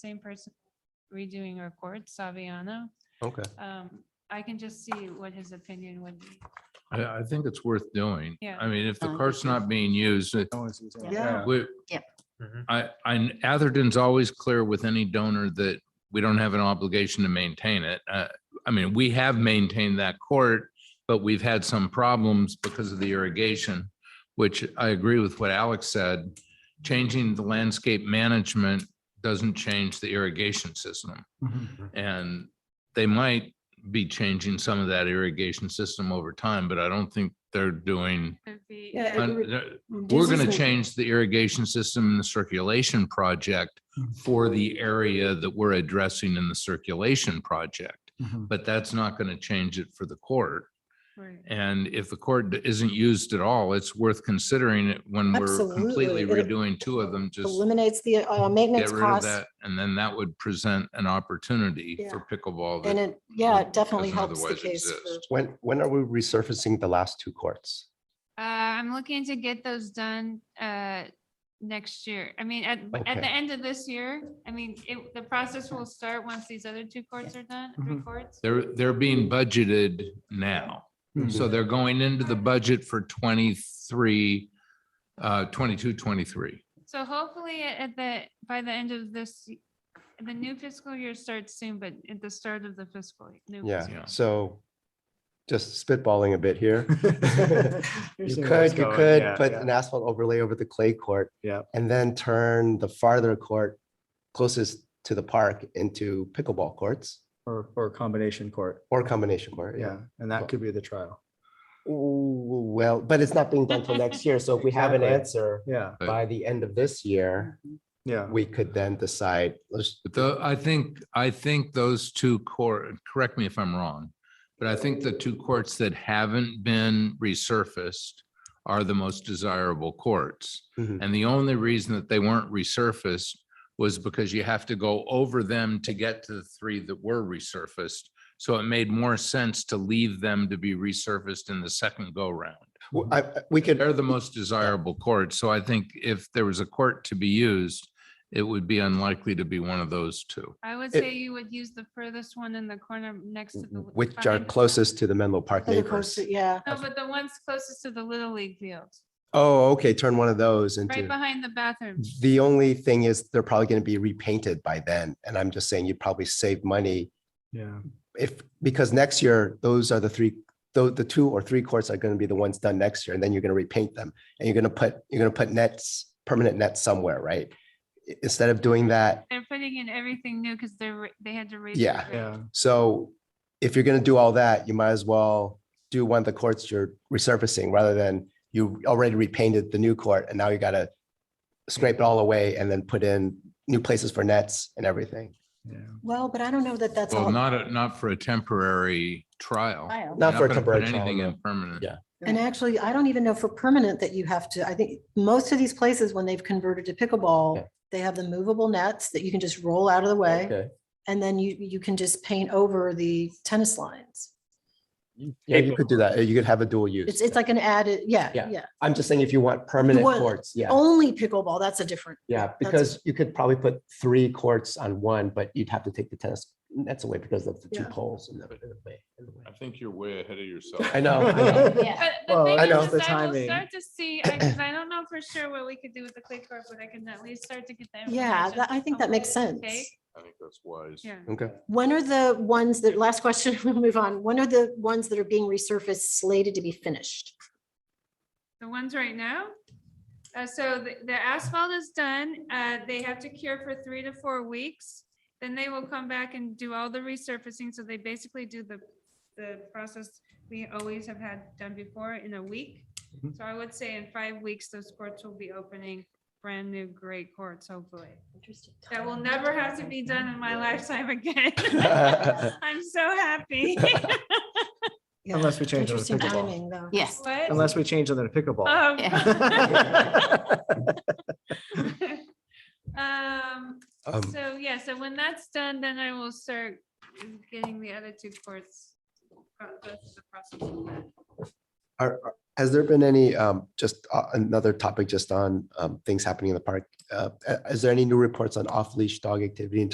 same person redoing reports, Saviano. Okay. Um, I can just see what his opinion would be. I, I think it's worth doing. Yeah. I mean, if I the do cart's too. not being used, it- Yeah. we- Yep. Mhm. I, I, Atherton's always clear with any donor that we don't have an obligation to maintain it. Uh, I mean, we have maintained that court, but we've had some problems because of the irrigation, which I agree with what Alex said. Changing the landscape management doesn't change the irrigation system. Mm-hmm. And they might be changing some of that irrigation system over time, but I don't think they're doing Could be- Yeah, un- every- they're- this we're is gonna like- change the irrigation system and the circulation project for the area that we're addressing in the circulation project. Mm-hmm. But that's not gonna change it for the court. Right. And if the court isn't used at all, it's worth considering it when we're completely Absolutely. It- redoing two of them, just Eliminates the uh, get maintenance rid of costs that. And then that would present an opportunity for pickleball. and that- it, yeah, doesn't it definitely helps the otherwise case. exist. for- When, when are we resurfacing the last two courts? Uh, I'm looking to get those done, uh, next year. I mean, at, at Okay. the end of this year, I mean, it, the process will start once these other two courts are done, Mm-hmm. three courts. They're, they're being budgeted now. So they're going into the budget for 23, uh, 22, 23. So hopefully at at the, by the end of this, y- the new fiscal year starts soon, but at the start of the fiscal. y- new fiscal- Yeah, Yeah. so just spitballing a bit here. You You could, you could put an asphalt overlay over the clay court. Yep. And then turn the farther court closest to the park into pickleball courts Or, or a combination court, or combination court. yeah, and that could be the trial, Ooh, Well, but it's not being done till next year. So if we have an Exactly. answer yeah, Right. by the end of this year, yeah. we could then decide, let's, But the, I think, I think those two court, correct me if I'm wrong, but I think the two courts that haven't been resurfaced are the most desirable courts. Mhm. And the only reason that they weren't resurfaced was because you have to go over them to get to the three that were resurfaced. So it made more sense to leave them to be resurfaced in the second go round. w- I- I- we could. They're the most desirable court, so I think if there was a court to be used, it would be unlikely to be one of those two. I would It- say you would use the furthest one in the corner next to the. li- which are behind the- closest to the Menlo Park for the coast, neighbors. Yeah, No, but the ones closest to the Little League field, Oh, okay, turn one of those right into, behind the bathroom. the only thing is they're probably going to be repainted by then. And I'm just saying you'd probably save money Yeah, if, because next year, those are the three, the, the two or three courts are going to be the ones done next year. And then you're going to repaint them and you're going to put, you're going to put nets, permanent nets somewhere, right? I- Instead of doing that, They're putting in everything new because they're, ra- they had to raise. the Yeah. grade. yeah, so if you're going to do all that, you might as well do one of the courts you're resurfacing rather than you already repainted the new court and now you got to scrape it all away and then put in new places for nets and everything. yeah. well, but I don't know that that's Well, all. not, a- not for a temporary trial. You're Kyle. Not for a gonna put temporary Anything trial. in permanent. Yeah. And actually, I don't even know for permanent that you have to, I think most of these places, when they've converted to pickleball, Okay. they have the movable nets that you can just roll out of the way. Okay. And then you, you can just paint over the tennis lines. Yeah, you could do that. You could have a dual It's, use. it's like an added, yeah, Yeah. yeah. I'm just saying if you want permanent want- courts, yeah, Only pickleball, that's a different, yeah, because you could probably put three courts on one, but you'd have to take the tennis nets away because of the two Yeah. poles. in the- in the way- in the way. think you're way ahead of yourself. I Oh, know, I know. Yeah. But the Well, thing I is, know is the I will timing. start to see, I, 'cause I don't know for sure what we could do with the clay court, but I can at least start to get that. yeah, that- I think that makes sense. I think that's wise. Yeah. Okay. When are the ones that, last question, we'll move on. When are the ones that are being resurfaced slated to be finished? The ones right now? Uh, so the, the asphalt is done, uh, they have to cure for three to four weeks. Then they will come back and do all the resurfacing, so they basically do the, the process we always have had done before in a week. So I would say in five weeks, those courts will be opening brand new great courts, hopefully. That will never have to be done in my lifetime again. I'm so happy. Yeah. Unless we change it to Interesting pickleball, timing, though. Yes. What? unless we change it to pickleball. Um, Ah. Um, Um, so yeah, so when that's done, then I will start getting the other two courts. pro- go through the process of that. Are, are- has there been any, um, just uh, another topic just on, um, things happening in the park? Uh, uh, is there any new reports on off-leash dog activity in